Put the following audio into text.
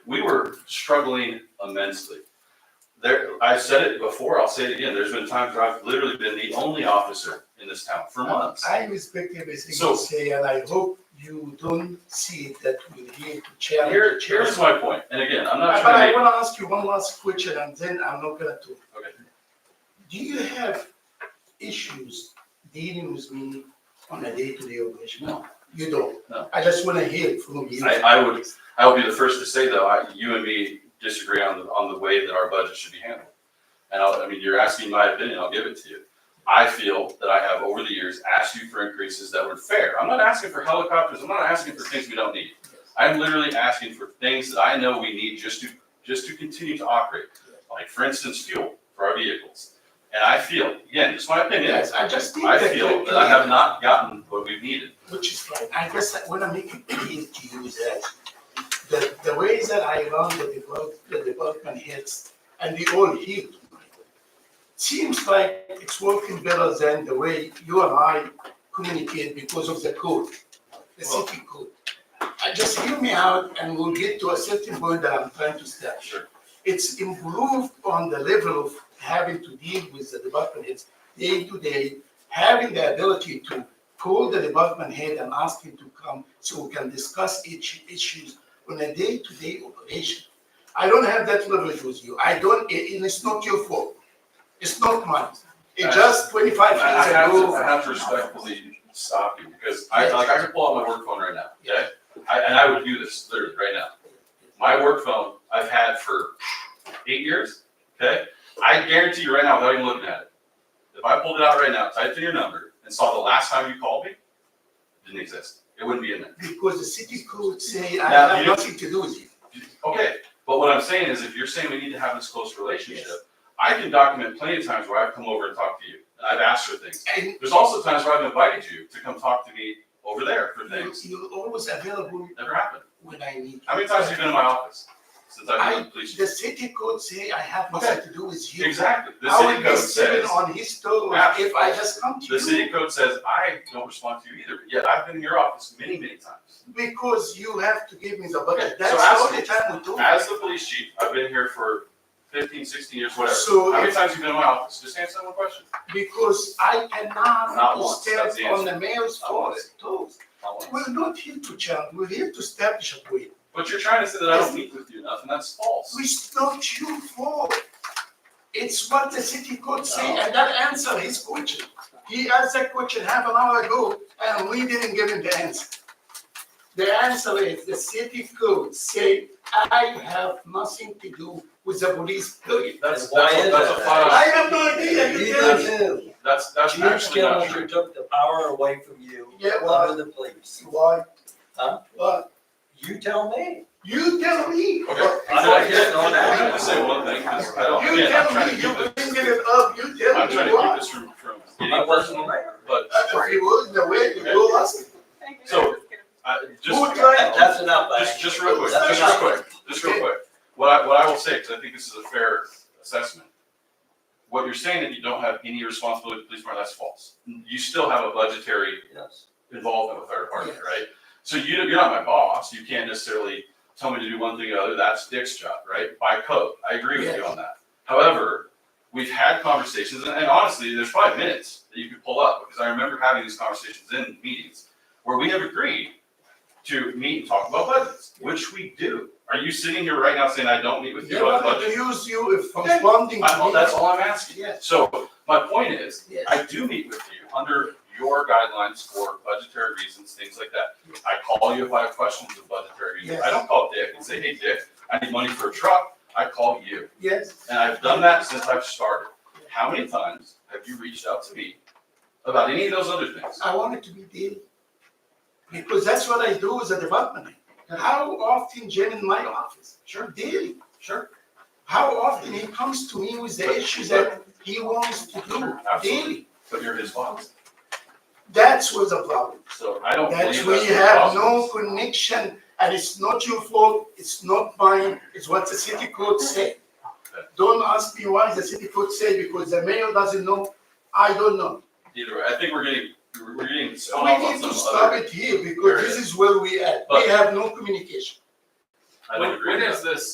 we were struggling immensely. There, I've said it before, I'll say it again, there's been times where I've literally been the only officer in this town for months. I respect everything you So- say, and I hope you don't see it that we're here to challenge. Here, each here's other. my point, and again, I'm not But I trying to wanna ask you one last question, and then I'm not gonna talk. Okay. Do you have issues dealing with me on a day-to-day operation? No. You don't? No. I just wanna hear it from you. I- I would- I will be the first to say though, I, you and me disagree on the, on the way that our budget should be handled. And I'll, I mean, you're asking my opinion, I'll give it to you. I feel that I have over the years asked you for increases that were fair. I'm not asking for helicopters, I'm not asking for things we don't need. I'm literally asking for things that I know we need just to, just to continue to operate. Like for instance, fuel for our vehicles. And I feel, again, just my opinion, Yes, I just did I that feel very that I clear. have not gotten what we've needed. which is fine. I guess I wanna make it clear to you that the, the way that I run the develop, the development heads, and we all here, seems like it's working better than the way you and I communicate because of the code, the Well- city code. Uh, Just hear me out and we'll get to a certain point that I'm trying to establish. Sure. It's improved on the level of having to deal with the department heads day to day, having the ability to call the department head and ask him to come so we can discuss each issues on a day-to-day operation. I don't have that leverage with you. I don't, a- and it's not your fault. It's not mine. It just twenty-five Uh, I I years have to, ago. I have to respectfully stop you, because I, like, I could pull out my work phone right now, okay? I, and I would do this literally right now. My work phone, I've had for eight years, okay? I guarantee you right now, without even looking at it, if I pulled it out right now, typed in your number, and saw the last time you called me, it didn't exist, it wouldn't be in there. Because the city code say I Now, have you- nothing to do with you. Okay, but what I'm saying is, if you're saying we need to have this close relationship, I can document plenty of times where I've come over and talked to you, and I've asked for things. And There's also times where I've invited you to come talk to me over there for you- things. you're always available Never happened. when I need. How many times have you been in my office since I've been I, in police? the city code say I have nothing to do with you. Exactly. The I city will be code sitting says, on his toes Yeah. if I just come to you. the city code says, I don't respond to you either, but yet I've been in your office many, many times. Because you have to give me the Okay, budget, that's so the ask only me. time we do it. As the police chief, I've been here for 15, 16 years, whatever. How So, many if- times have you been in my office? Just answer that one question. because I Not cannot once, step that's the on the mayor's Not once. toes, toes. Not once. We're not here to challenge, we're here to establish a way. But you're trying to say that I don't meet with you enough, and that's false. It's not your fault. It's what the city could say, No. and that answer his question. He asked that question half an hour ago, and we didn't give him the answer. The answer is the city code say, I have nothing to do with the police, period. That's, Why that's, a- is that's a it? I flat out, have no idea, you tell me. do. that's, that's Gene actually not true. Skillinger took the power away from you. Yeah, well- Under the police. Why? Huh? Why? You tell me. You tell me. Okay. I'm not getting on that. I'm gonna say one thing, 'cause I don't, You again, I'm tell trying me, to you keep this, bringing it up, you tell I'm me trying to keep why. this from, from I getting wasn't personal, aware. but If you would, the way you go, ask. So, I, Who just, tried- That- That's enough. I just, think. just real quick, That's just real enough. quick, just real quick. What I, what I will say, because I think this is a fair assessment. What you're saying that you don't have any responsibility to police department, that's false. You still have a budgetary Yes. involvement with our department, Yes. right? So you, you're not my boss, you can't necessarily tell me to do one thing or the other, that's Dick's job, right? By code, I agree with you on that. However, we've had conversations, and and honestly, there's probably minutes that you could pull up, because I remember having these conversations in meetings where we have agreed to meet and talk about budgets, which we do. Are you sitting here right now saying I don't meet with you You on want to budget? use you if Okay. responding to I'm- me. That's all I'm asking. Yes. So my point is, Yes. I do meet with you under your guidelines for budgetary reasons, things like that. I call you if I have questions of budgetary reasons. Yes. I don't call Dick and say, hey, Dick, I need money for a truck. I call you. Yes. And I've done that since I've started. How many times have you reached out to me about any of those other things? I want it to be daily. Because that's what I do as a development. How often Jim in my office? Sure. Daily. Sure. How often he comes to me with the issues that he wants to do daily? Absolutely. But you're his boss. That's what's the problem. So I don't That's believe where that's you the have no problem. connection, and it's not your fault, it's not mine, it's what the city code said. Don't ask me why the city code said, because the mayor doesn't know, I don't know. Either way, I think we're getting, we're getting spun We off on need to some stop other. it here, because this is where we at, we But- have no communication. I don't When, agree with when that. is this